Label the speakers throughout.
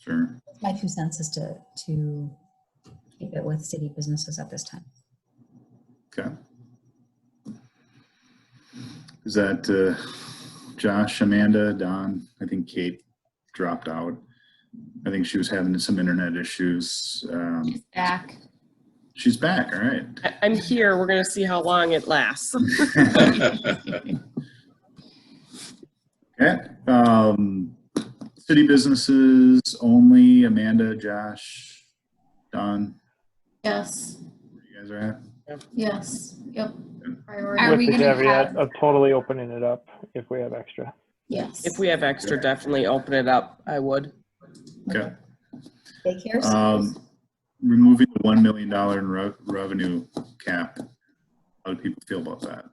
Speaker 1: Sure.
Speaker 2: My two cents is to, to keep it with city businesses at this time.
Speaker 1: Okay. Is that uh, Josh, Amanda, Don? I think Kate dropped out. I think she was having some internet issues. Um,
Speaker 3: back.
Speaker 1: she's back. All right.
Speaker 4: I- I'm here. We're going to see how long it lasts.
Speaker 1: Okay. Um, city businesses only. Amanda, Josh, Don.
Speaker 3: Yes,
Speaker 1: You guys are at.
Speaker 3: yes, yep.
Speaker 5: With
Speaker 3: Priority.
Speaker 5: the
Speaker 3: we
Speaker 2: gonna
Speaker 5: caveat
Speaker 2: have-
Speaker 5: of totally opening it up if we have extra.
Speaker 3: Yes.
Speaker 4: If we have extra, definitely open it up. I would.
Speaker 1: Okay.
Speaker 2: Daycare centers,
Speaker 1: Um, removing the one million dollar in rev- revenue cap. How do people feel about that?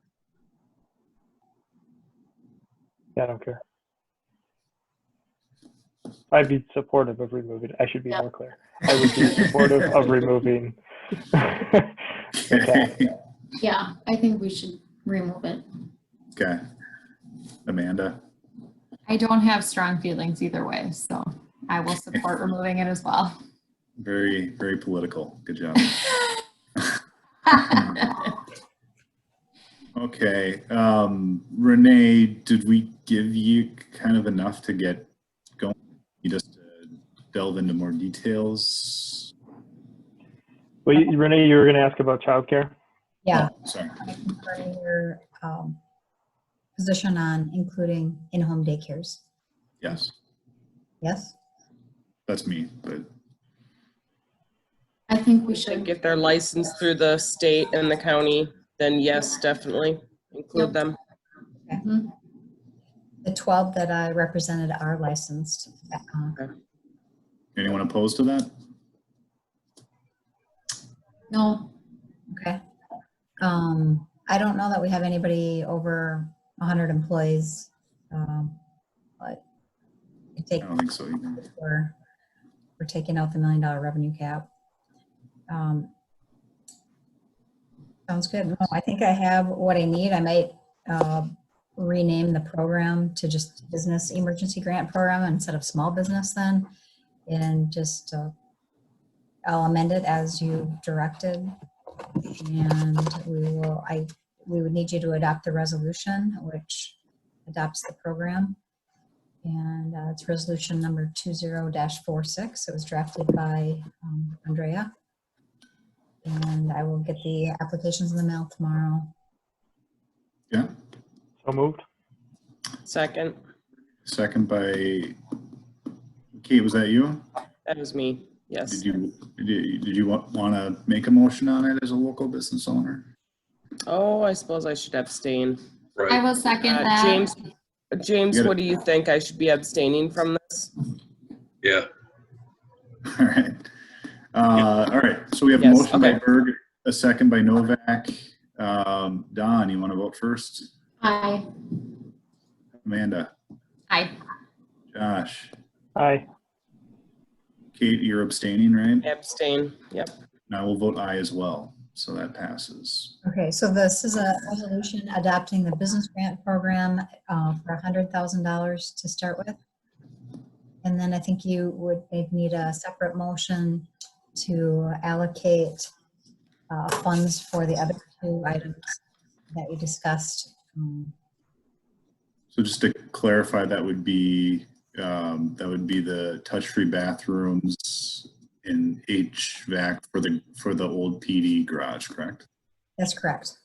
Speaker 5: I don't care. I'd be supportive of removing, I should be
Speaker 3: Yeah.
Speaker 5: more clear. I would be supportive of removing.
Speaker 1: Okay.
Speaker 3: Yeah, I think we should remove it.
Speaker 1: Okay. Amanda,
Speaker 6: I don't have strong feelings either way, so I will support removing it as well.
Speaker 1: very, very political. Good job. Okay. Um, Renee, did we give you kind of enough to get going? You just uh, delve into more details?
Speaker 5: Well, you- Renee, you were gonna ask about childcare?
Speaker 2: Yeah,
Speaker 1: Oh, Sorry.
Speaker 2: confirming your um, position on including in-home daycares.
Speaker 1: Yes,
Speaker 2: Yes?
Speaker 1: that's me, but
Speaker 3: I think we
Speaker 4: Should
Speaker 3: should,
Speaker 4: get their license through the state and the county, then yes, definitely include them.
Speaker 2: The 12 that I represented are licensed. uh,
Speaker 1: anyone opposed to that?
Speaker 3: no,
Speaker 2: Okay. Um, I don't know that we have anybody over 100 employees. um, But I
Speaker 1: I
Speaker 2: take
Speaker 1: don't think so either.
Speaker 2: We're, we're taking out the million dollar revenue cap. Um, Sounds good. No, I think I have what I need. I might uh, rename the program to just Business Emergency Grant Program instead of Small Business then. And just, uh, I'll amend it as you directed. And we will, I, we would need you to adopt the resolution, which adopts the program. And uh, it's resolution number 20-46. It was drafted by um, Andrea. And I will get the applications in the mail tomorrow.
Speaker 1: Yeah,
Speaker 5: So moved?
Speaker 4: Second,
Speaker 1: second by, Kate, was that you?
Speaker 4: that was me.
Speaker 1: Did
Speaker 4: Yes.
Speaker 1: you, did you- did you want, want to make a motion on it as a local business owner?
Speaker 4: Oh, I suppose I should abstain.
Speaker 6: I will second
Speaker 4: Uh,
Speaker 6: that.
Speaker 4: James, James,
Speaker 1: You gotta-
Speaker 4: what do you think? I should be abstaining from this?
Speaker 7: Yeah,
Speaker 1: All right. Uh, all right, so we have a
Speaker 4: Yes,
Speaker 1: motion by
Speaker 4: okay.
Speaker 1: Berg, a second by Novak. Um, Don, you want to vote first?
Speaker 3: I,
Speaker 1: Amanda,
Speaker 6: Aye.
Speaker 1: Josh,
Speaker 5: Aye.
Speaker 1: Kate, you're abstaining, right?
Speaker 4: Abstain, yep.
Speaker 1: And I will vote aye as well, so that passes.
Speaker 2: Okay, so this is a resolution adopting the business grant program uh, for $100,000 to start with. And then I think you would maybe need a separate motion to allocate uh, funds for the other two items that we discussed. um,
Speaker 1: So just to clarify, that would be, um, that would be the touch-free bathrooms and HVAC for the, for the old PD garage, correct?
Speaker 2: That's correct.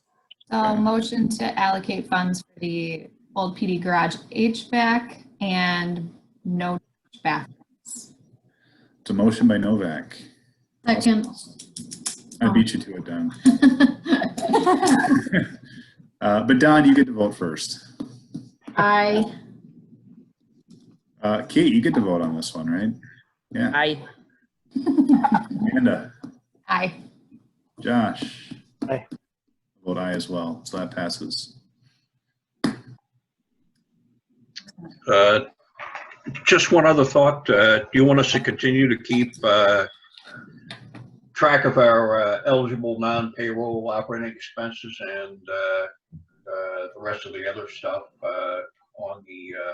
Speaker 6: So motion to allocate funds for the old PD garage HVAC and no bathrooms.
Speaker 1: It's a motion by Novak.
Speaker 3: second.
Speaker 1: I beat you to it, Don. Uh, but Don, you get to vote first.
Speaker 3: I,
Speaker 1: Uh, Kate, you get to vote on this one, right?
Speaker 4: Aye.
Speaker 1: Amanda,
Speaker 6: Aye.
Speaker 1: Josh.
Speaker 5: Aye.
Speaker 1: Vote aye as well, so that passes.
Speaker 7: uh, just one other thought. Uh, do you want us to continue to keep, uh, track of our uh, eligible non-payroll operating expenses and, uh, uh, the rest of the other stuff, uh, on the, uh,